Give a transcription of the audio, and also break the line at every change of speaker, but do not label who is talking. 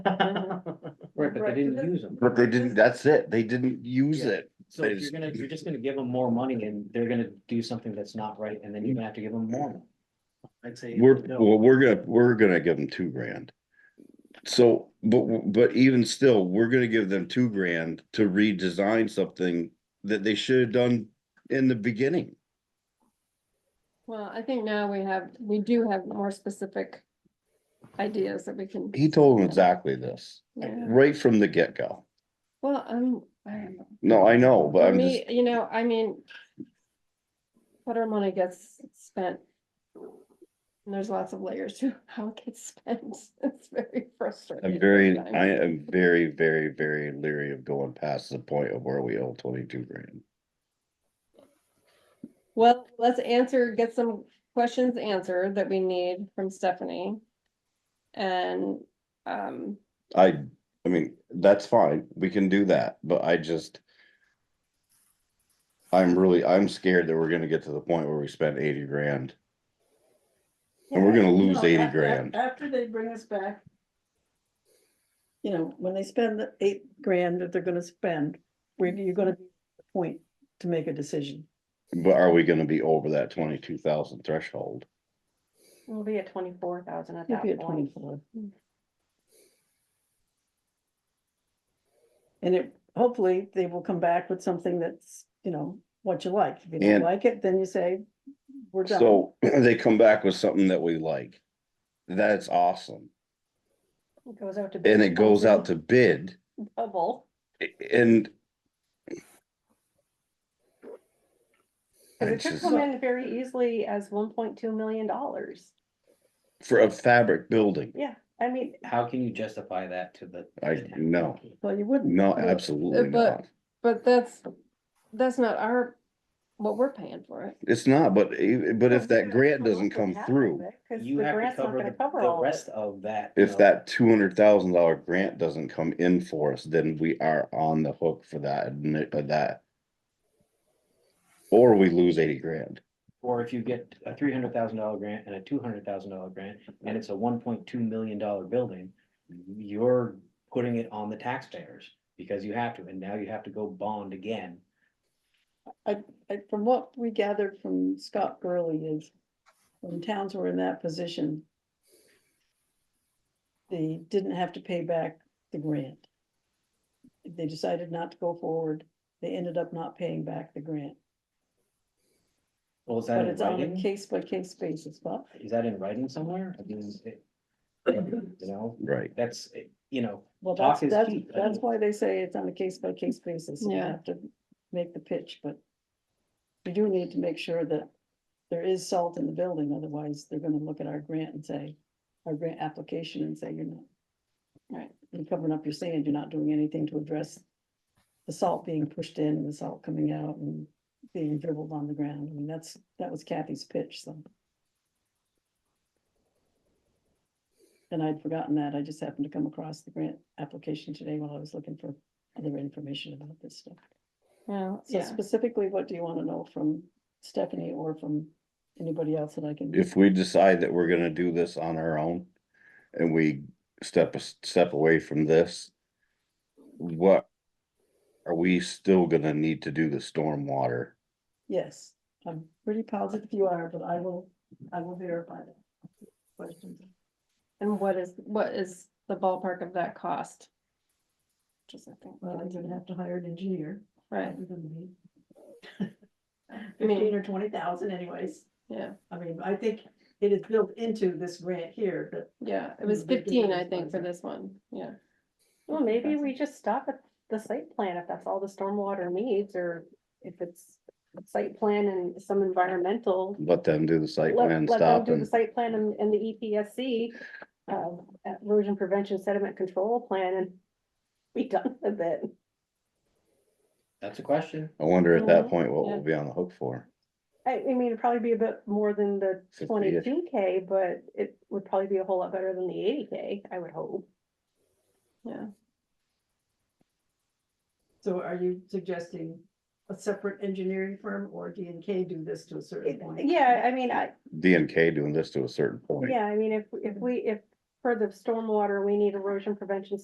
Right, but they didn't use them.
But they didn't, that's it. They didn't use
Yeah.
it.
So if you're gonna, you're just gonna give them more money and they're gonna do something that's not right, and then you're gonna have to give them more. money. I'd say.
We're,
no.
well, we're gonna, we're gonna give them two grand. So, but, but even still, we're gonna give them two grand to redesign something that they should have done in the beginning.
Well, I think now we have, we do have more specific ideas that we can.
He told them exactly this,
yeah.
right from the get-go.
Well, I'm, I don't know.
No, I know, but
For
I'm just,
me, you know, I mean. Water money gets spent. And there's lots of layers to how it gets spent. It's very frustrating.
I'm very,
sometimes.
I am very, very, very leery of going past the point of where we owe twenty-two grand.
Well, let's answer, get some questions answered that we need from Stephanie. And, um,
I, I mean, that's fine, we can do that, but I just. I'm really, I'm scared that we're gonna get to the point where we spend eighty grand. And we're gonna lose
No,
eighty
a- a-
grand.
After they bring us back. You know, when they spend the eight grand that they're gonna spend, we're, you're gonna be at the point to make a decision.
But are we gonna be over that twenty-two thousand threshold?
we'll be at twenty-four thousand at
You'll be
that
at
point.
twenty-four.
Mm.
And it, hopefully, they will come back with something that's, you know, what you like. If you
And-
don't like it, then you say, we're done.
So they come back with something that we like. That's awesome,
It Goes out to. bid
and it goes out to bid
Double.
and.
Cause
I
it could
just-
come in very easily as one point two million dollars.
For a fabric building,
Yeah, I mean,
How can you justify that to the?
I, no,
Well, you wouldn't.
no, absolutely
but-
not.
But that's, that's not our, what we're paying for it.
It's not, but, e- but if that grant doesn't come through,
You have to cover the, the rest of that. you
if
know,
that two hundred thousand dollar grant doesn't come in for us, then we are on the hook for that, admi- uh, that. Or we lose eighty grand.
Or if you get a three hundred thousand dollar grant and a two hundred thousand dollar grant, and it's a one point two million dollar building, you're putting it on the taxpayers because you have to, and now you have to go bond again.
I- From what we gathered from Scott Gurley is, when towns were in that position, they didn't have to pay back the grant. They decided not to go forward, they ended up not paying back the grant,
Well, is that
but
in
it's on a
writing?
case by case basis, but
Is that in writing somewhere? I mean, is it- You know,
Right.
that's, you know,
well,
Talk
that's,
is
that's,
cheap, I
that's
mean.
why they say it's on a case by case basis, and you
Yeah.
have to make the pitch, but we do need to make sure that there is salt in the building, otherwise they're gonna look at our grant and say, our grant application and say, you're not
Right.
you're covering up your sand, you're not doing anything to address the salt being pushed in, and the salt coming out and being dribbled on the ground. I mean, that's, that was Kathy's pitch, so. And I'd forgotten that. I just happened to come across the grant application today while I was looking for other information about this stuff.
Yeah,
So specifically, what do you want to know from Stephanie or from anybody else that I can?
If we decide that we're gonna do this on our own and we step, a step away from this, what are we still gonna need to do the stormwater?
Yes, I'm pretty positive you are, but I will, I will verify that. Questions?
And what is, what is the ballpark of that cost? Just I think,
Well, you're gonna have to hire an engineer.
right,
other than me.
I mean-
Fifteen or twenty thousand anyways.
yeah,
I mean, I think it is built into this grant here, but
yeah, it was
Mm, they did
fifteen,
that
I
as
think,
well,
for
so.
this one, yeah. Well, maybe we just stop at the site plan if that's all the stormwater needs, or if it's site plan and some environmental.
Let them do the site
let-
plan
let them
stop
do
and.
The site plan and, and the E EPSC, um, erosion prevention sediment control plan and be done with it.
that's a question.
I wonder at
Uh-huh.
that
Mhm,
point what we'll
yeah.
be on the hook for.
I, I mean, it'd probably be a bit more than the
50-ish.
twenty-two K, but it would probably be a whole lot better than the eighty K, I would hope.
so are you suggesting a separate engineering firm or D and K do this to a certain point?
Yeah, I mean, I,
D and K doing this to a certain point.
yeah, I mean, if, if we, if
per the stormwater, we need erosion prevention